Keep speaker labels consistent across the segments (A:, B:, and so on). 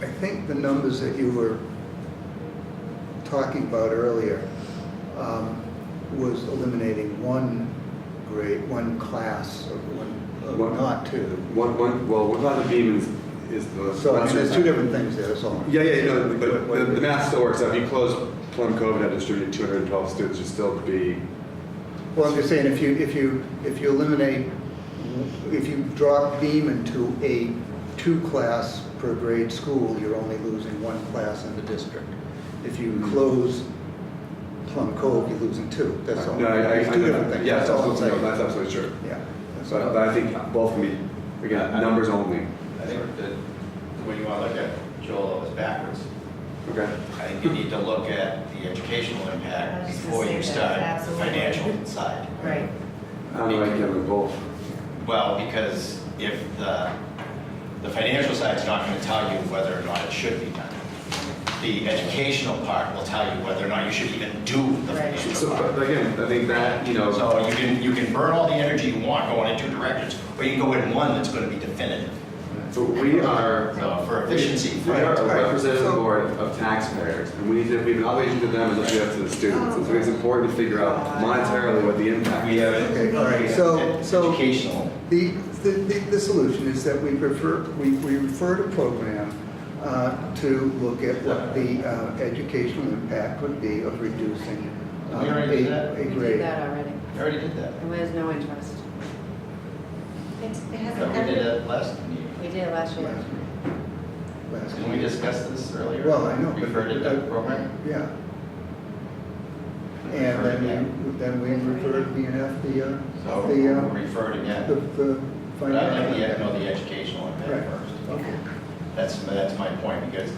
A: I think the numbers that you were talking about earlier um, was eliminating one grade, one class, or one, or
B: One-
A: not two.
B: One, one, well, what about the beam is, is the.
A: So I mean, there's two different things there, that's all.
B: Yeah, yeah, no, but the, the math still works out. If you close Plum Cove and have distributed two hundred and twelve students, you'd still be,
A: Well, I'm just saying, if you, if you, if you eliminate, if you drop Beam into a two-class per grade school, you're only losing one class in the district. If you close Plum Cove, you're losing two, that's all.
B: no, I, I.
A: There's two different things,
B: Yeah,
A: that's all I'm
B: absolutely, no,
A: saying.
B: that's absolutely true.
A: Yeah. that's
B: But, uh,
A: all.
B: but I think both can be, again, numbers only.
C: I think that when you want to look at Joel, it's backwards.
B: Okay.
C: I think you need to look at the educational
D: I
C: impact
D: was just
C: before
D: gonna
C: you
D: say
C: start
D: that,
C: the
D: absolutely.
C: financial side.
D: Right.
B: I don't know, I can have both.
C: Well, because if the, the financial side's not going to tell you whether or not it should be done. The educational part will tell you whether or not you should even do the
D: Right.
C: financial
B: So,
C: part.
A: uh,
B: but again, I think that, you know,
C: So you can, you can burn all the energy you want going in two directions, or you can go in one that's going to be definitive.
B: so we are.
C: So for efficiency,
B: We are
A: Right,
B: a
A: right.
B: representative
A: So-
B: board of taxpayers, and we need to, we have an obligation to them as much as we have to the students. And so it's important to figure out monetarily what the impact
C: we
B: is.
C: have
A: Okay, all right,
C: we have
A: so- so-
C: Educational.
A: The, the, the the solution is that we prefer, we, we refer to program uh, to look at what the uh, educational impact would be of reducing um,
C: We already did that.
A: a, a
D: We did
A: grade.
D: that already,
C: I already did that.
D: and there's no interest.
E: It's- It
C: No,
E: hasn't
C: we did
E: ever,
C: that last meeting.
D: We did last year.
A: Yeah. Last
C: Didn't we
A: year.
C: discuss this earlier?
A: Well, I know. but-
C: Referred it to program?
A: Yeah,
C: Referred
A: and
C: again.
A: then we, then we referred BNF the, uh,
C: So
A: the,
C: we'll
A: uh,
C: refer it
A: the,
C: again.
A: the
C: But I'd like
A: financial.
C: to get- know the educational impact
A: Right,
C: first.
A: okay,
C: That's, that's my point, because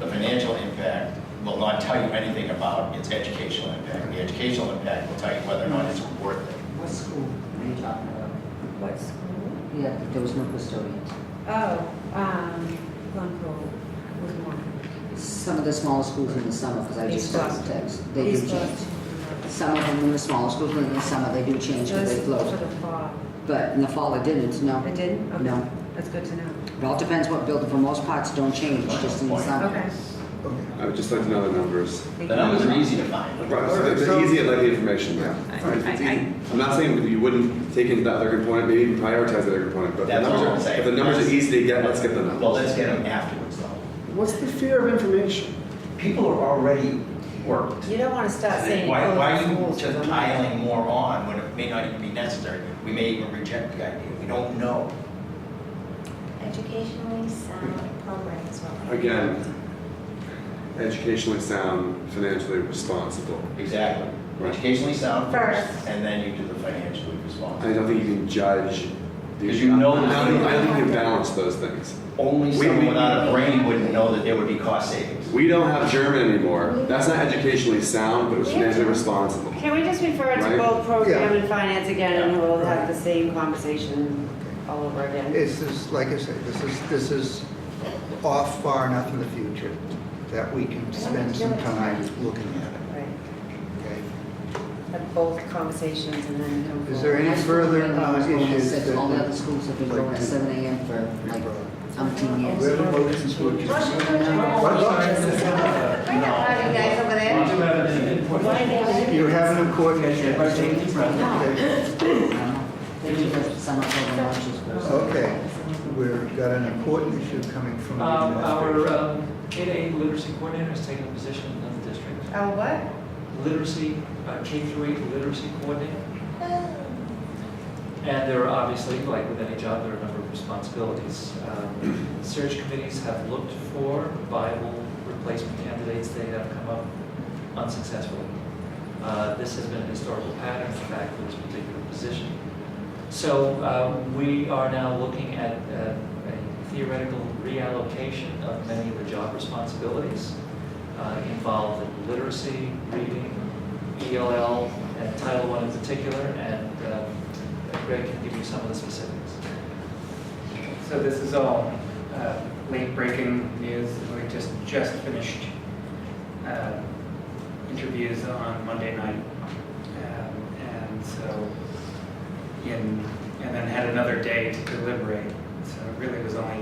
C: the financial impact will not tell you anything about its educational impact. The educational impact will tell you whether or not it's worth it.
F: What school are you talking about?
D: What school?
F: Yeah, that there was no custodians.
D: Oh, um, Plum Cove was one.
F: Some of the smaller schools in the summer, because I just
D: East
F: got the
D: Boston.
F: text, they do
D: East
F: change.
D: Boston.
F: Some of them in the smaller schools, in the summer, they do change because they
D: Those for
F: close.
D: the fall.
F: But in the fall, it didn't, no.
D: It didn't? Okay.
F: No.
D: That's good to know.
F: It all depends what building, for most parts, don't change, just in the
C: Point.
F: summer.
D: Okay.
A: okay.
B: I would just like to know the numbers.
C: The numbers are easy to find.
B: Right, so it's
A: So-
B: easy, I like the information,
A: Yeah.
B: yeah.
A: I-
B: I'm not saying that you wouldn't take into that other component, maybe even prioritize that other component, but the
C: That's
B: numbers
C: all I'm
B: are,
C: saying.
B: if the numbers are easy to get, let's get the
C: Well,
B: numbers.
C: let's get them afterwards, though.
G: What's the fear of information?
C: People are already worked.
D: You don't want to start
C: Why,
D: saying.
C: why
D: close
C: are you
D: schools for the
C: just
D: month.
C: piling more on when it may not even be necessary? We may even reject the idea, we don't know.
E: educationally sound program is what we.
B: Again, educationally sound, financially responsible.
C: Exactly.
B: Right.
C: Educationally sound first,
E: First.
C: and then you do the financially
B: I
C: responsible.
B: don't think you can judge. the-
C: 'Cause you know-
B: I don't think- I think you can balance those things.
C: Only
B: We-
C: someone
B: we-
C: without a brain wouldn't know that there would be cost savings.
B: We don't have German anymore. That's not educationally sound, but it's financially responsible.
H: Can we just refer
B: Right?
H: to both program
A: Yeah.
H: and finance again, and we'll have the same conversation
A: Okay.
H: all over again?
A: This is, like I said, this is, this is off far enough in the future that we can spend some time looking at it,
D: Right.
A: okay?
D: Have both conversations and then come forward.
A: Is there any further uh, issues that...
F: All the other schools have been going at seven AM for like umpteen
A: We
F: years.
A: have a motion to adjourn.
F: you guys over there?
A: You're having a coordination. Okay,
F: They do the summer program, which is good.
A: Okay. we've got an important issue coming from
I: Um,
A: the
I: Our
A: administration.
I: um, 8A literacy coordinator is taking a position in another district.
D: Oh, what?
I: Literacy, uh, K through 8 literacy coordinator. And there are obviously, like with any job, there are a number of responsibilities. Um, Search committees have looked for viable replacement candidates. They have come up unsuccessfully. Uh, This has been a historical pattern, in fact, for this particular position. So uh, we are now looking at uh, a theoretical reallocation of many of the job responsibilities uh, involved in literacy, reading, ELL, and Title I in particular, and uh, Greg can give you some of the specifics.
J: So this is all uh, late-breaking news. We just, just finished uh, interviews on Monday night. Um, And so, in, and then had another day to deliberate. So it really was only